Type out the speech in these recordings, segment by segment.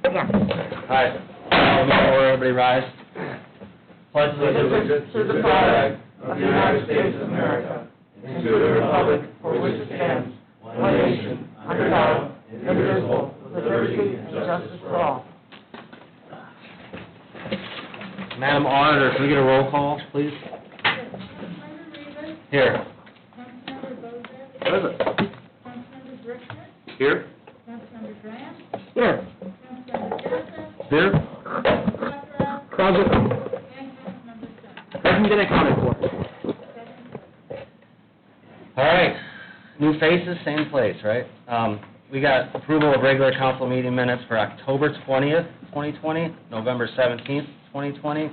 Second. Alright, all in favor, everybody rise. Pledge allegiance to the flag of the United States of America, and to the republic for which it stands, one nation, under God, indivisible, with liberty and justice for all. Madam Auditor, can we get a roll call, please? Councilmember Reavis, Here. Councilmember Bozak, Councilmember Brickner, Here. Councilmember Graham, Here. Councilmember Joseph, Here. Pepperell, Present. and Councilmember Stoner. Hasn't been accounted for. Seven All right, new faces, same place, right? Um, we got approval of regular council meeting minutes for October twentieth, twenty twenty, November seventeenth, twenty twenty,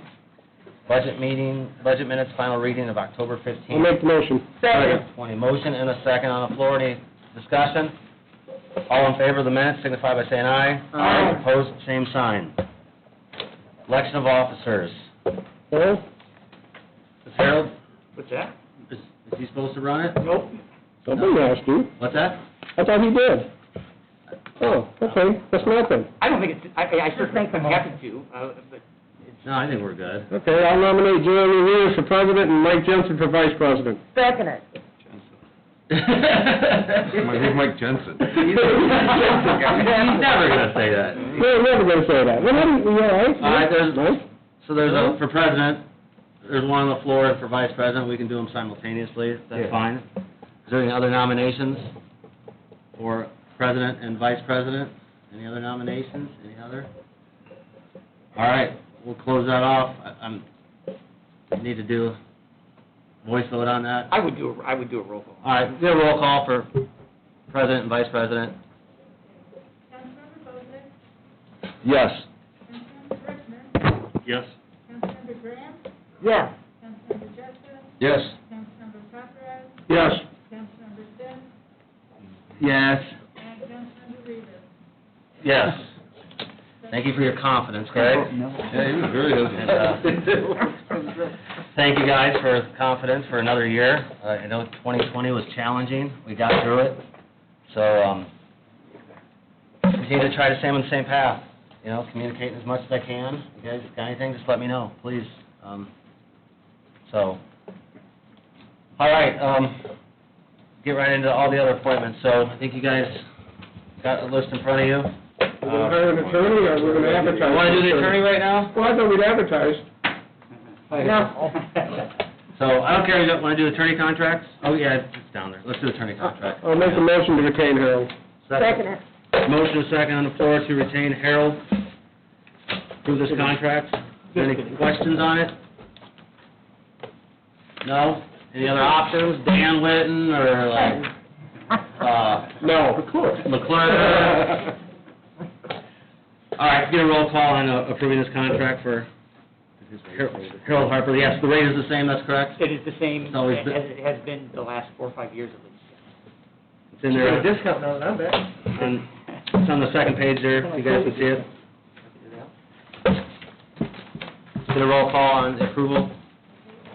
budget meeting, budget minutes, final reading of October I'll fifteenth. make the motion. Twenty, motion and a second on the floor, any discussion? All in favor of the minutes signify by saying aye. Aye. Opposed, same sign. Election of officers. Earl? Is Harold, What's that? is, is he supposed to run it? Nope. Somebody asked you. What's that? I thought he did. Oh, okay, that's nothing. I don't think it's, I, I sure think I'm happy to, uh, but No, I think we're good. Okay, I'll nominate Jeremy Reeves for president and Mike Jensen for vice president. Second it. He's Mike- Who's Mike Jensen? never gonna say that. We're never gonna say that. Well, then, you all right? All right, there's- Mike? So there's a, for president, there's one on the floor, and for vice president, we can do them simultaneously, that's fine. Is there any other nominations for president and vice president? Any other nominations, any other? All right, we'll close that off. I- I'm, need to do voice vote on that. I would do, a I would do a roll call. All right, do a roll call for president and vice president. Councilmember Bozak, Yes. Councilmember Brickner, Yes. Councilmember Graham, Yes. Councilmember Joseph, Yes. Councilmember Pepperell, Yes. Councilmember Stoner, Yes. and Councilmember Reavis. Yes. Thank you for your confidence, Craig. Yeah, he was very And, uh, Thank you guys for confidence for another year. Uh, I know 2020 was challenging, we got through it. So, um, continue to try to stay on the same path, you know, communicating as much as I can. You guys got anything, just let me know, please. Um, So, all right, um, get right into all the other appointments. So I think you guys got a list in front of you. We're gonna hire an attorney or we're gonna advertise? You want to do the attorney right now? Well, I thought we'd advertise. So, I don't care, you don't wanna do attorney contracts? Oh, yeah, it's down there, let's do attorney contract. I'll make a motion to retain Harold. Second it. Motion second on the floor to retain Harold. Approve this contract. Any questions on it? No? Any other options? Dan Litton, or like, uh, No, of course. McClure? All right, get a roll call on uh, approving this contract for Harold Harper, yes, the rate is the same, that's correct? It is the same, It's as always been- it has been the last four or five years at least. It's in there. discount now, not bad. And it's on the second page there, if you guys can see it. Get a roll call on approval?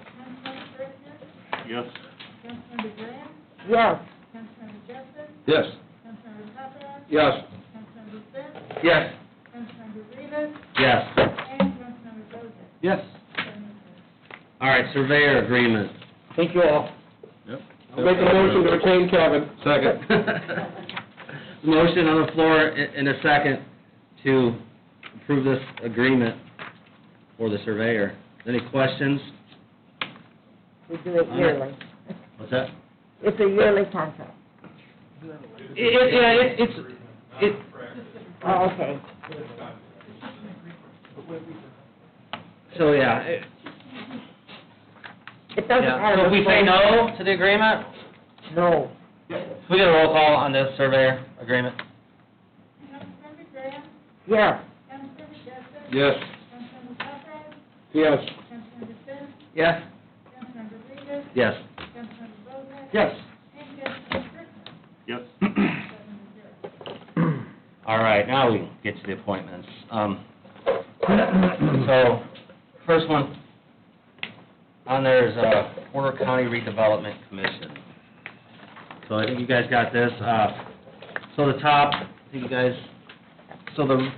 Councilmember Brickner, Yes. Councilmember Graham, Yes. Councilmember Joseph, Yes. Councilmember Pepperell, Yes. Councilmember Stoner, Yes. Councilmember Reavis, Yes. and Councilmember Bozak. Yes. Seven zero. All right, surveyor agreement. Thank you all. Yep. I'll make a motion to retain Kevin. Second. Motion on the floor i- in a second to approve this agreement for the surveyor. Any questions? We do it yearly. What's that? It's a yearly contract. It, it, yeah, it- it's, it, Oh, okay. so, yeah, it- It doesn't yeah. matter. So if we say no to the agreement, No. Can we get a roll call on the surveyor agreement? Councilmember Graham, Yes. Councilmember Jessup, Yes. Councilmember Pepperell, Yes. Councilmember Finn, Yes. Councilmember Reavis, Yes. Councilmember Bozak, Yes. and Councilmember Brickner, Yes. seven to zero. All right, now we get to the appointments. Um, so, first one, on there is, uh, Porter County Redevelopment Commission. So I think you guys got this, uh, so the top, I think you guys, so the